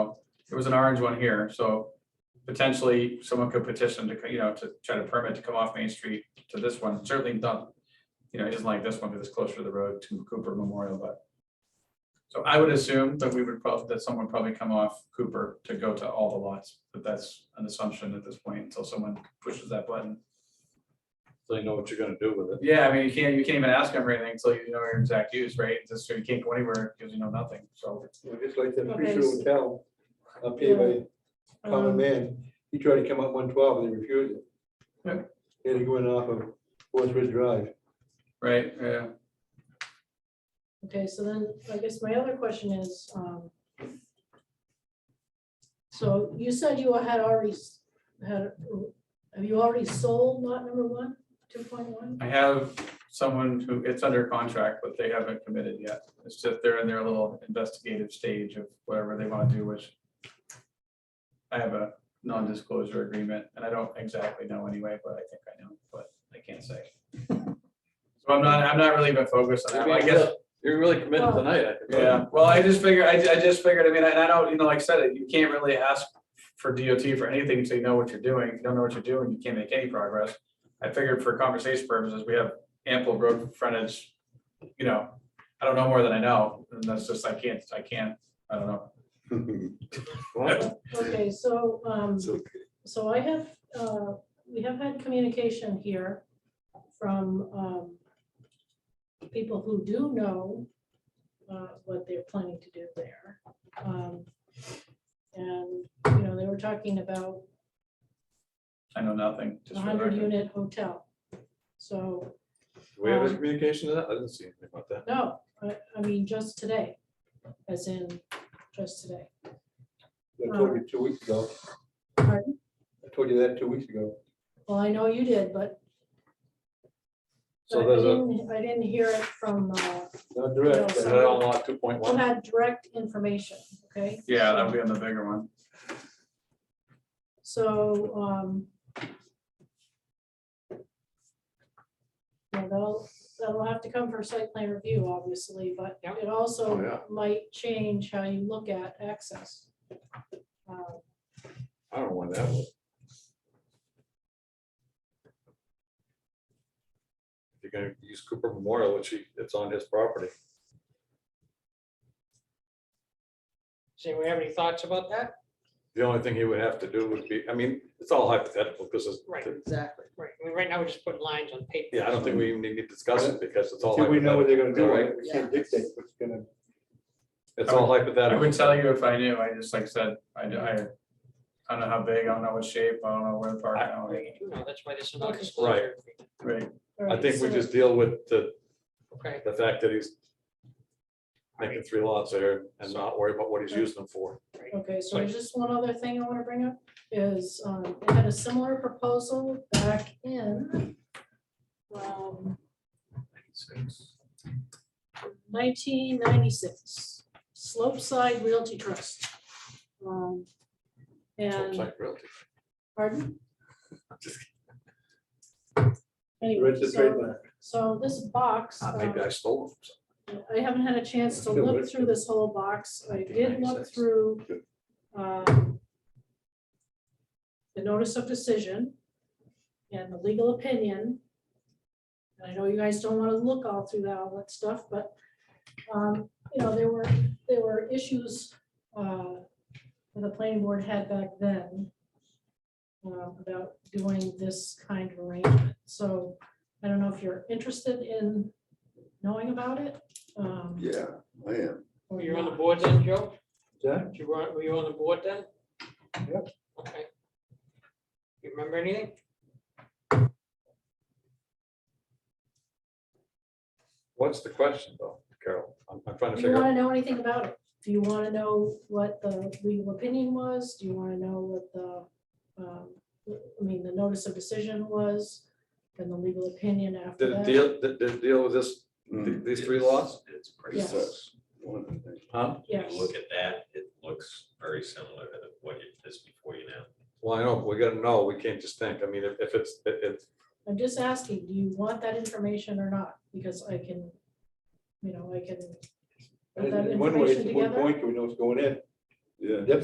There was an orange one here, so potentially someone could petition to, you know, to try to permit to come off Main Street to this one, certainly not. You know, it isn't like this one, because it's closer to the road to Cooper Memorial, but. So I would assume that we would probably, that someone would probably come off Cooper to go to all the lots, but that's an assumption at this point until someone pushes that button. They know what you're gonna do with it. Yeah, I mean, you can't, you can't even ask them for anything until you know your exact use, right? Just, so you can't go anywhere because you know nothing, so. Yeah, Just like that Okay, um, Fisher Hotel, up here by Common Man, he tried to come up one twelve and they refused it. Yeah. He had to go in off of West Ridge Drive. Right, yeah, Okay, so then, I guess my other question is, um, so you said you had already, s- had, have you already sold lot number one, two point one? I have someone who, it's under contract, but they haven't committed yet. It's just they're in their little investigative stage of whatever they want to do, which. I have a non-disclosure agreement and I don't exactly know anyway, but I think I know, but I can't say. So I'm not, I'm not really even focused on that, I guess. You're really committed Well- tonight. I can tell. Yeah, well, I just figured, I, I just figured, I mean, and I don't, you know, like I said, you can't really ask for DOT for anything until you know what you're doing. If you don't know what you're doing, you can't make any progress. I figured for conversation purposes, we have ample road frontage, you know, I don't know more than I know, and that's just, I can't, I can't, I don't know. Well, Okay, so, um, So so I have, uh, we have had communication here from, um, people who do know, uh, what they're planning to do there. Um, And, you know, they were talking about I know nothing. just for a the record. hundred unit hotel. So, Do we have a communication to that? I didn't see anything about that. no, I, I mean, just today, as in, just today. I told you two weeks ago. Pardon? I told you that two weeks ago. Well, I know you did, but but So I there's a, didn't, I didn't hear it from, uh, Not direct, is but No, that on lot two point you one? had direct information, okay? Yeah, that'll be on the bigger one. So, um, yeah, that'll, that'll have to come for site plan review, obviously, but it Oh, also yeah. might change how you look at access. Uh, I don't know why that was. If You're gonna use Cooper Memorial, which he, it's on his property. So we have any thoughts about that? The only thing he would have to do would be, I mean, it's all hypothetical because it's. Right. Exactly. Right, I mean, right now, we're just putting lines on paper. Yeah, I don't think we even need to discuss it because it's all. Until we know what they're gonna do, Right. we can't dictate what's gonna, It's all I hypothetical. would tell you if I knew, I just, like I said, I, I, I don't know how big, I don't know what shape, I don't know where the park, I don't know, No, That's why there's no disclosure. agreement. right? all I right, think we so- just deal with the, Okay, the fact that he's making three lots there and not worry about what he's using them for. Okay, so Like- there's just one other thing I want to bring up is, um, I had a similar proposal back in um, 1996, Slopeside Realty Trust. Um, So it's And, like realty. pardon? Just kidding. Anyway, register so, trademark. so this box. Uh, um, Maybe I stole them. I haven't had a chance to Yeah, look let's through this whole box. I did look 96. through Good. um, the notice of decision and the legal opinion. And I know you guys don't want to look all through that, all that stuff, but, um, you know, there were, there were issues uh, that the planning board had back then uh, about doing this kind of arrangement. So I don't know if you're interested in knowing about it. um, Yeah, I am. or Oh, were you on the not. board then, Joe? Yeah. You were, were you on the board then? Yep. Okay. You remember anything? What's the question though, Carol? I'm, I'm trying to Do you figure want out. to know anything about it? Do you want to know what the legal opinion was? Do you want to know what the, um, I mean, the notice of decision was? And the legal opinion after Did it that? deal, did, did it deal with this, th- these three lots? It's pretty, Yes. That's one of the things. Huh? when Yes, you look at that, it looks very similar to what it is before you now. Well, I know, but we gotta know. We can't just think. I mean, if, if it's, it, it's, I'm just asking, do you want that information or not? Because I can, you know, I can. put that and in one way, information it's one together. point, we know what's going in. Yeah.